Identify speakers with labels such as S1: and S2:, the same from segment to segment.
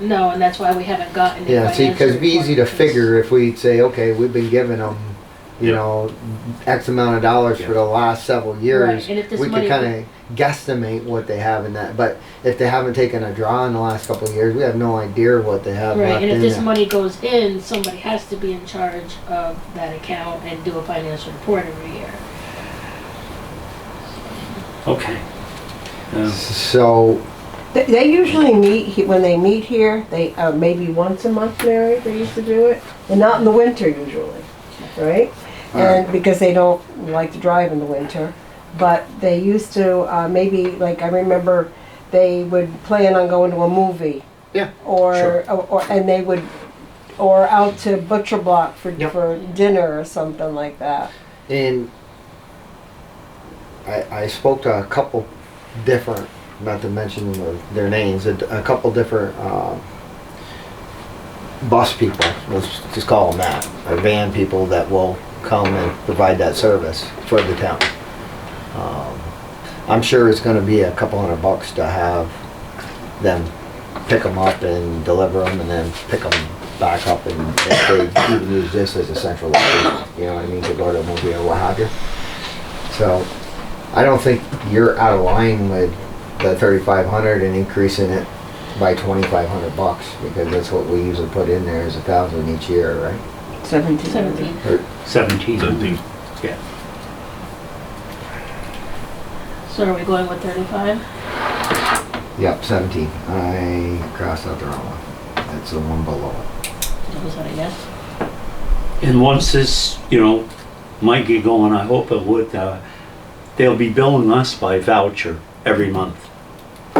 S1: No, and that's why we haven't gotten. the
S2: Yeah, see, because it'd be
S1: financial
S2: easy to
S1: reporting.
S2: figure if we'd say, okay, we've been giving them, you
S3: Yep.
S2: know, X amount of dollars for
S3: Yeah.
S2: the last several years.
S1: Right, and if this
S2: We
S1: money-
S2: could kind of guesstimate what they have in that, but if they haven't taken a draw in the last couple of years, we have no idea what they have
S1: Right,
S2: left
S1: and if
S2: in
S1: this
S2: there.
S1: money goes in, somebody has to be in charge of that account and do a financial report every year.
S3: Okay. Um,
S2: So,
S4: They- They usually meet, he- when they meet here, they, uh, maybe once a month, Mary, they used to do it, and not in the winter usually, right? And because they don't like to drive in the winter, but they used to, uh, maybe, like, I remember they would plan on going to a movie.
S2: Yeah,
S4: Or, or, or- and they would, or out to Butcher Block for,
S2: Yep.
S4: for dinner or something like that.
S2: and I, I spoke to a couple different, not to mention their- their names, a, a couple different, um, bus people, let's just call them that, or van people that will come and provide that service for the town. Um, I'm sure it's gonna be a couple hundred bucks to have them pick them up and deliver them and then pick them back up and if they even use this as a central location, you know what I mean, to go to a movie or what have you. So, I don't think you're out of line with the thirty-five hundred and increasing it by twenty-five hundred bucks, because that's what we usually put in there is a thousand each year, right?
S4: Seventeen.
S1: Seventeen.
S2: Or-
S3: 17.
S5: Seventeen.
S3: Yeah.
S1: So are we going with thirty-five?
S2: Yep, seventeen. I crossed out the wrong one. That's the one below it.
S1: Was that a yes?
S3: And once this, you know, might get going, I hope it would, uh, they'll be billing us by voucher every month.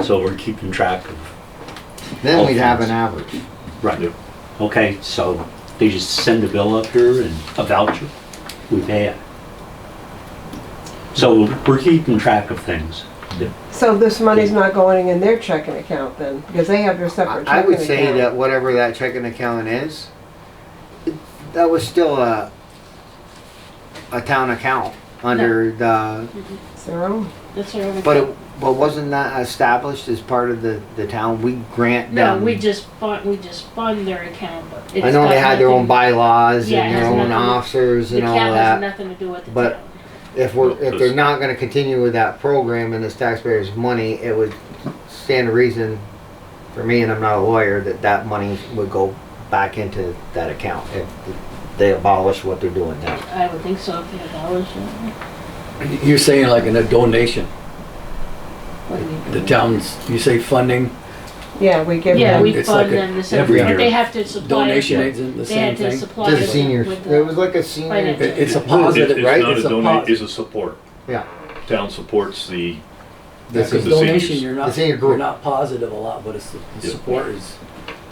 S3: So we're keeping track of,
S2: Then we'd have an average.
S3: right. Okay, so they just send a bill up here and a voucher, we pay it. So we're keeping track of things.
S4: So this money's not going in their checking account then, because they have their separate checking
S2: I I
S4: account.
S2: would say that whatever that checking account is, that was still a, a town account under the,
S4: It's their own.
S1: That's what we're.
S2: but it, but wasn't that established as part of the, the town? We grant
S1: No,
S2: them.
S1: we just fund, we just fund their account, but.
S2: I
S1: it's
S2: know
S1: got
S2: they had their own
S1: nothing-
S2: bylaws
S1: Yeah, it
S2: and their
S1: has
S2: own
S1: nothing-
S2: officers
S1: The
S2: and all
S1: account has
S2: that.
S1: nothing to do with the
S2: but-
S1: town.
S2: If we're,
S5: Well,
S2: if they're
S5: there's-
S2: not gonna continue with that program and it's taxpayers' money, it would stand a reason for me, and I'm not a lawyer, that that money would go back into that account if they abolish what they're doing now.
S1: I would think so if they had dollars. yeah.
S6: You're saying like in a donation,
S1: What do we do?
S6: the town's, you say funding,
S4: Yeah, we give
S1: Yeah,
S4: them.
S1: we
S6: It's
S1: fund
S6: like a-
S1: them the same,
S6: every
S1: but
S6: year.
S1: they have to supply.
S6: donation isn't the
S1: They had
S6: same
S1: to
S6: thing.
S1: supply.
S2: To
S1: it
S2: the seniors,
S1: with
S2: it was
S1: the-
S2: like a senior.
S1: Financial.
S6: It- It's a
S5: It-
S6: positive,
S5: it's
S6: right?
S5: not
S6: It's
S5: a
S6: a
S5: donate,
S6: positive.
S5: it's a support.
S2: Yeah.
S5: Town supports the,
S6: Because
S2: This is-
S6: donation,
S5: seniors.
S6: you're
S2: It's
S6: not,
S2: in your
S6: you're
S2: group.
S6: not positive a lot, but it's, the- the
S5: Yeah.
S6: support is,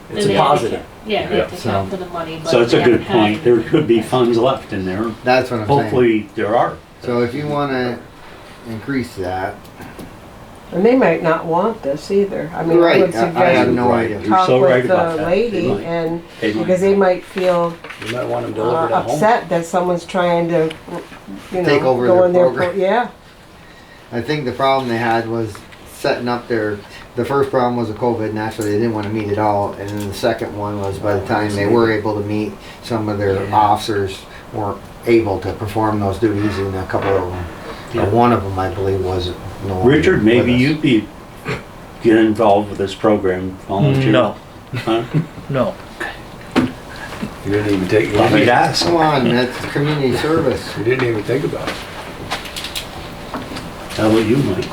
S1: and
S6: it's
S1: they
S6: a
S1: have to
S6: positive.
S1: count- Yeah, they have to
S2: Yeah,
S1: count
S2: so-
S1: for the money, but.
S3: So it's a
S1: they
S3: good
S1: haven't had
S3: point. There
S1: any.
S3: could be funds left in there.
S2: That's what I'm saying.
S3: Hopefully, there are.
S2: So if you wanna increase that,
S4: And they might not want this either. I mean, I
S2: Right,
S4: would
S2: I- I have
S4: suggest
S2: no idea.
S4: you
S3: You're
S4: talk
S3: so right
S4: with the
S3: about that. They
S4: lady
S3: might.
S4: and,
S3: They might.
S4: because they might feel
S6: You might want them
S4: uh,
S6: delivered at home.
S4: upset that someone's trying to, you know.
S2: Take over
S4: go
S2: their
S4: in their
S2: program.
S4: pro- Yeah,
S2: I think the problem they had was setting up their, the first problem was the COVID, naturally, they didn't wanna meet at all. And then the second one was by the time they were able to meet, some of their officers weren't able to perform those duties and a couple of them.
S3: Yeah.
S2: Or one of them, I believe, was no longer
S3: Richard, maybe
S2: with us.
S3: you'd be, get involved with this program, volunteer.
S5: No.
S3: Huh?
S5: no.
S6: You didn't even take,
S3: Let me
S6: you
S3: ask.
S2: Come on, that's community service.
S6: didn't even think about it.
S3: How about you, Mike?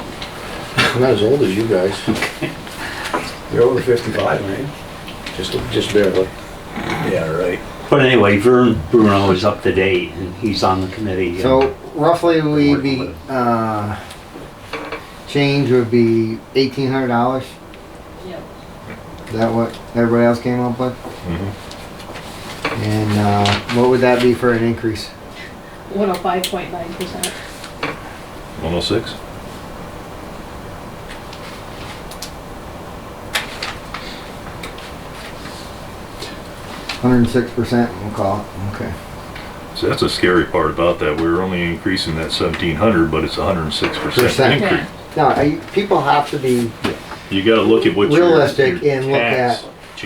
S7: I'm not as old as you guys,
S6: You're over fifty-five, right?
S7: just, just barely.
S6: Yeah, right.
S3: But anyway, Vern Bruno is up to date and he's on the committee.
S2: So roughly we'd
S3: working
S2: be,
S3: with
S2: uh, change would be eighteen hundred dollars.
S1: Yeah.
S2: Is that what everybody else came up with? And, uh, what would that be for an increase?
S1: 105.9%.
S5: One oh six?
S2: Hundred and six percent, we'll call it, okay.
S5: So that's the scary part about that. We're only increasing that seventeen hundred, but it's hundred and six
S2: Percent.
S5: percent
S1: Yeah.
S5: increase.
S2: Now, I- people have to be
S5: You gotta look at what your.
S2: Realistic
S5: your
S2: and look
S5: tax-
S2: at-